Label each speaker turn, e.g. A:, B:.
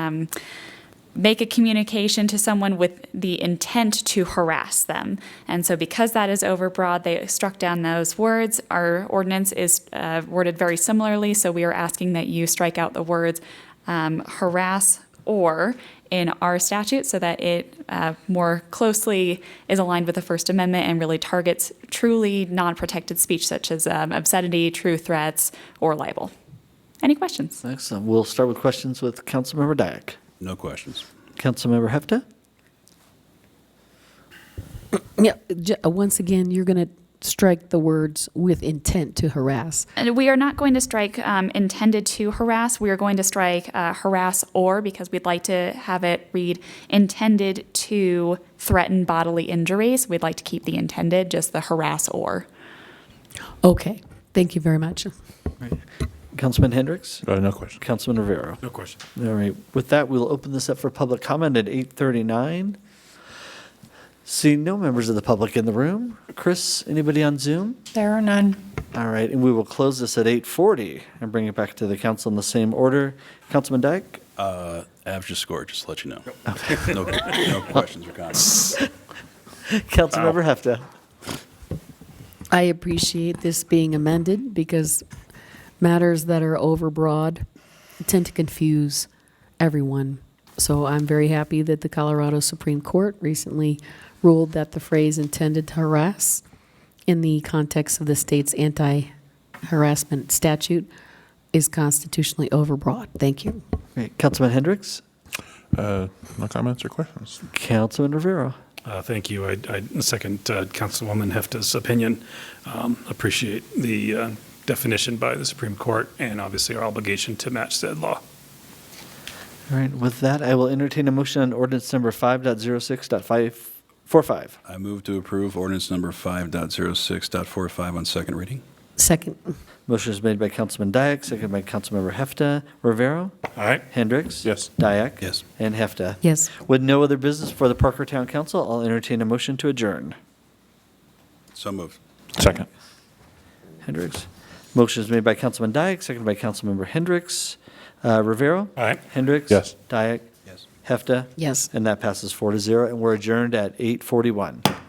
A: um, make a communication to someone with the intent to harass them. And so because that is overbroad, they struck down those words. Our ordinance is uh, worded very similarly, so we are asking that you strike out the words um, harass or in our statute so that it uh, more closely is aligned with the First Amendment and really targets truly non-protected speech such as um, obscenity, true threats, or libel. Any questions?
B: Excellent. We'll start with questions with Councilmember Dyak.
C: No questions.
B: Councilmember Hefta?
D: Yeah, j- uh, once again, you're going to strike the words with intent to harass.
A: And we are not going to strike um, intended to harass. We are going to strike uh, harass or because we'd like to have it read intended to threaten bodily injuries. We'd like to keep the intended, just the harass or.
D: Okay, thank you very much.
B: Councilman Hendricks?
C: Uh, No questions.
B: Councilman Rivera?
C: No questions.
B: All right. With that, we'll open this up for public comment at 8:39. See no members of the public in the room. Chris, anybody on Zoom?
E: There are none.
B: All right, and we will close this at 8:40 and bring it back to the council in the same order. Councilman Dyke?
C: Av's just scored, just to let you know. No no questions or comments.
B: Councilmember Hefta?
D: I appreciate this being amended because matters that are overbroad tend to confuse everyone. So I'm very happy that the Colorado Supreme Court recently ruled that the phrase intended to harass in the context of the state's anti-harassment statute is constitutionally overbroad. Thank you.
B: Great. Councilman Hendricks?
F: Uh, no comments or questions.
B: Councilman Rivera?
G: Uh, Thank you. I I second uh, Councilwoman Hefta's opinion. Um, Appreciate the uh, definition by the Supreme Court and obviously our obligation to match said law.
B: All right, with that, I will entertain a motion on ordinance number 5.06.545.
C: I move to approve ordinance number 5.06.45 on second reading.
D: Second,
B: Motion is made by Councilman Dyak, seconded by Councilmember Hefta. Rivera?
G: All right.
B: Hendricks?
F: Yes.
B: Dyak?
C: Yes.
B: And Hefta?
D: yes.
B: With no other business for the Parker Town Council, I'll entertain a motion to adjourn.
C: So moved.
F: Second.
B: Hendricks. Motion is made by Councilman Dyak, seconded by Councilmember Hendricks. Uh, Rivera?
G: Aye.
B: Hendricks?
F: Yes.
B: Dyak?
C: Yes.
B: Hefta?
D: Yes.
B: And that passes four to zero, and we're adjourned at 8:41.